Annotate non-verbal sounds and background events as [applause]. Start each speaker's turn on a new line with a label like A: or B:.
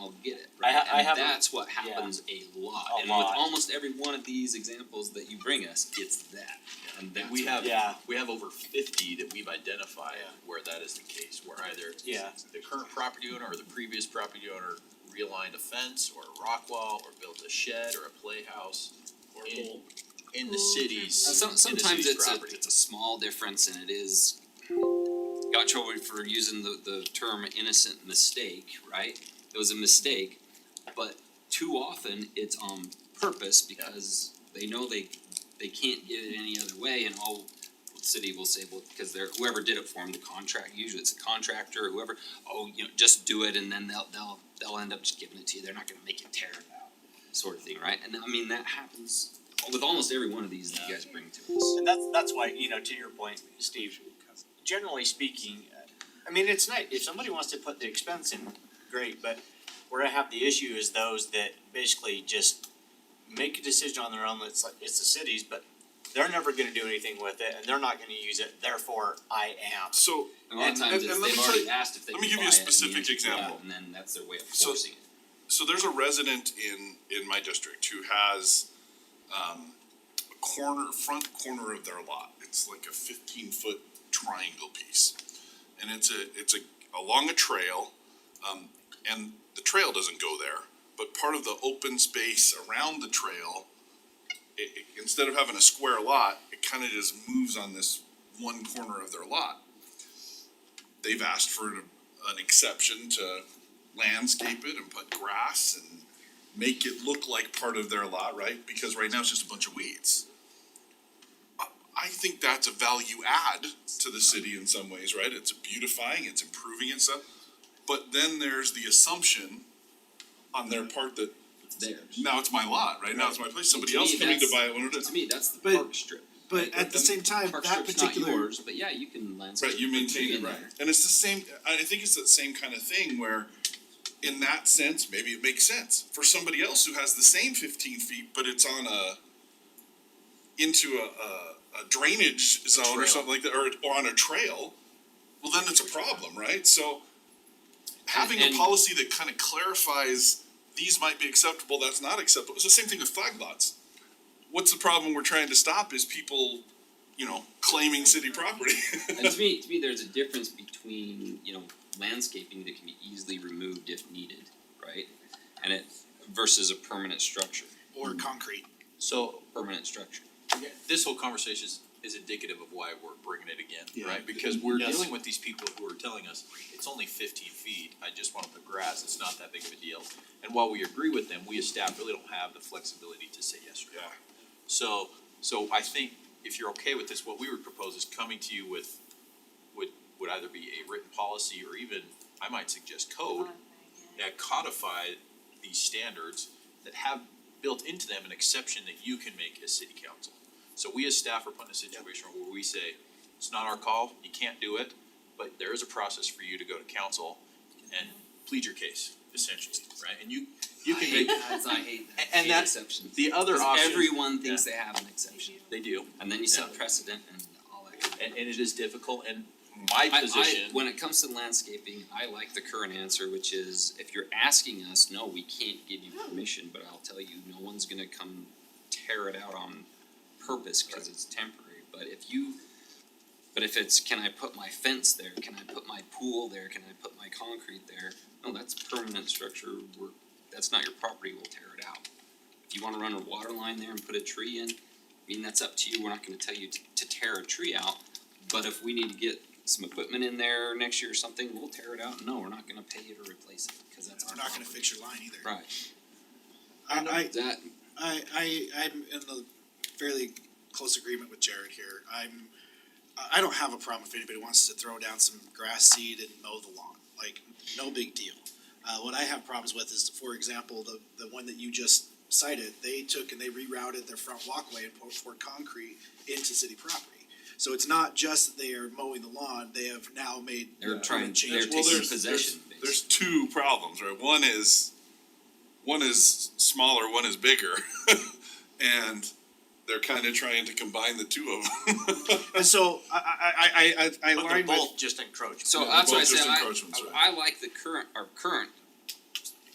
A: I ha- I
B: And
A: have a-
B: that's what happens a lot,
A: A
B: and
A: lot.
B: with almost every one of these examples that you bring us, it's that, and that's
C: We
B: what-
C: have,
A: Yeah.
C: we have over fifty that we've identified
A: Yeah.
C: where that is the case, where either
A: Yeah.
C: the current property owner or the previous property owner realigned a fence or a rock wall or built a shed or a playhouse
D: Or
C: in-
D: bowl.
C: in the
E: Pool,
C: city's,
B: Uh, some,
C: in the
B: sometimes
C: city's
B: it's a,
C: property.
B: it's a small difference and it is, got in trouble for using the, the term innocent mistake, right? It was a mistake, but too often it's on purpose because they know they, they can't get it any other way and all the city will say, well, because they're, whoever did it for them, the contract, usually it's a contractor, or whoever, oh, you know, just do it and then they'll, they'll, they'll end up just giving it to you, they're not gonna make you tear it out, sort of thing, right? And I mean, that happens with almost every one of these that you guys bring to us.
A: And that's, that's why, you know, to your point, Steve, generally speaking, uh, I mean, it's nice, if somebody wants to put the expense in, great, but where I have the issue is those that basically just make a decision on their own, it's like, it's the cities, but they're never gonna do anything with it, and they're not gonna use it, therefore I am.
F: So,
B: And a lot of
F: And-
B: times
F: and-
B: it's,
F: and let
B: they've
F: me tell
B: already
F: you-
B: asked if they
F: let
B: can
F: me
B: buy it.
F: give you a
B: and the
F: specific
B: answer is yeah,
F: example.
B: And then that's their way of
F: So-
B: forcing it.
F: so there's a resident in, in my district who has, um, a corner, front corner of their lot. It's like a fifteen foot triangle piece. And it's a, it's a, along a trail, um, and the trail doesn't go there, but part of the open space around the trail, it, it, instead of having a square lot, it kinda just moves on this one corner of their lot. They've asked for an, an exception to landscape it and put grass and make it look like part of their lot, right? Because right now it's just a bunch of weeds. I- I think that's a value add to the city in some ways, right? It's beautifying, it's improving and stuff. But then there's the assumption on their part that
B: It's theirs.
F: now it's my lot, right? Now it's my place. Somebody else
B: me,
F: coming to
B: that's-
F: buy it when it
B: To
F: is.
B: me, that's the
G: But-
B: park strip.
G: But at the same time,
B: Park
G: that
B: strip's not
G: particular,
B: yours, but yeah, you can landscape.
F: Right, you
B: and put a tree
F: maintain it,
B: in
F: right.
B: there.
F: And it's the same, I I think it's that same kind of thing where in that sense, maybe it makes sense for somebody else who has the same fifteen feet, but it's on a into a a, a drainage zone or
C: trail.
F: something like that, or or on a trail, well, then it's a problem, right? So having
B: and-
F: a policy that kind of clarifies these might be acceptable, that's not acceptable. It's the same thing with flag lots. What's the problem we're trying to stop is people, you know, claiming city property. [laughs]
B: And to me, to me, there's a difference between, you know, landscaping that can be easily removed if needed, right? And it versus a permanent structure,
D: Or concrete.
C: So
B: permanent structure.
C: this whole conversation is, is indicative of why we're bringing it again,
G: Yeah.
C: right? Because we're
G: Yes.
C: dealing with these people who are telling us, it's only fifteen feet, I just wanna put grass, it's not that big of a deal. And while we agree with them, we as staff really don't have the flexibility to say yes or no.
F: Yeah.
C: So, so I think if you're okay with this, what we would propose is coming to you with, would, would either be a written policy or even, I might suggest code that codify these standards that have built into them an exception that you can make as city council. So we as staff are put in a situation where we say, it's not our call, you can't do it, but there is a process for you to go to council and plead your case, essentially, right? And you, you can make,
B: I hate that.
C: And that-
B: exceptions.
C: the other
B: 'Cause
C: option.
B: everyone thinks they have an exception,
C: They do,
B: and then you set
C: Yeah.
B: precedent and all that. kind of
C: and, and it is difficult, and my
B: I- I-
C: position.
B: when it comes to landscaping, I like the current answer, which is if you're asking us, no, we can't give you permission, but I'll tell you, no one's gonna come tear it out on purpose because it's temporary, but if you, but if it's, can I put my fence there, can I put my pool there, can I put my concrete there? No, that's permanent structure, we're, that's not your property, we'll tear it out. If you wanna run a water line there and put a tree in, I mean, that's up to you, we're not gonna tell you to, to tear a tree out, but if we need to get some equipment in there next year or something, we'll tear it out, no, we're not gonna pay you to replace it, cause that's our
D: We're not gonna
B: property.
D: fix your line either.
B: Right,
D: I,
B: that,
D: I, I, I'm in the fairly close agreement with Jared here. I'm, I, I don't have a problem if anybody wants to throw down some grass seed and mow the lawn, like, no big deal. Uh, what I have problems with is, for example, the, the one that you just cited, they took and they rerouted their front walkway and poured, poured concrete into city property. So it's not just that they are mowing the lawn, they have now made.
B: they're trying,
D: changes.
B: they're
F: Well,
B: taking
F: there's-
B: possession, basically.
F: There's two problems, right? One is, one is smaller, one is bigger, [laughs] and they're kind of trying to combine the two of them. [laughs]
D: And so, I, I, I, I, I
A: But they're
D: line with.
A: both just encroachment.
B: So
F: Yeah,
B: that's why I
F: both
B: say
F: just
B: I,
F: encroachments,
B: I I like the current, our current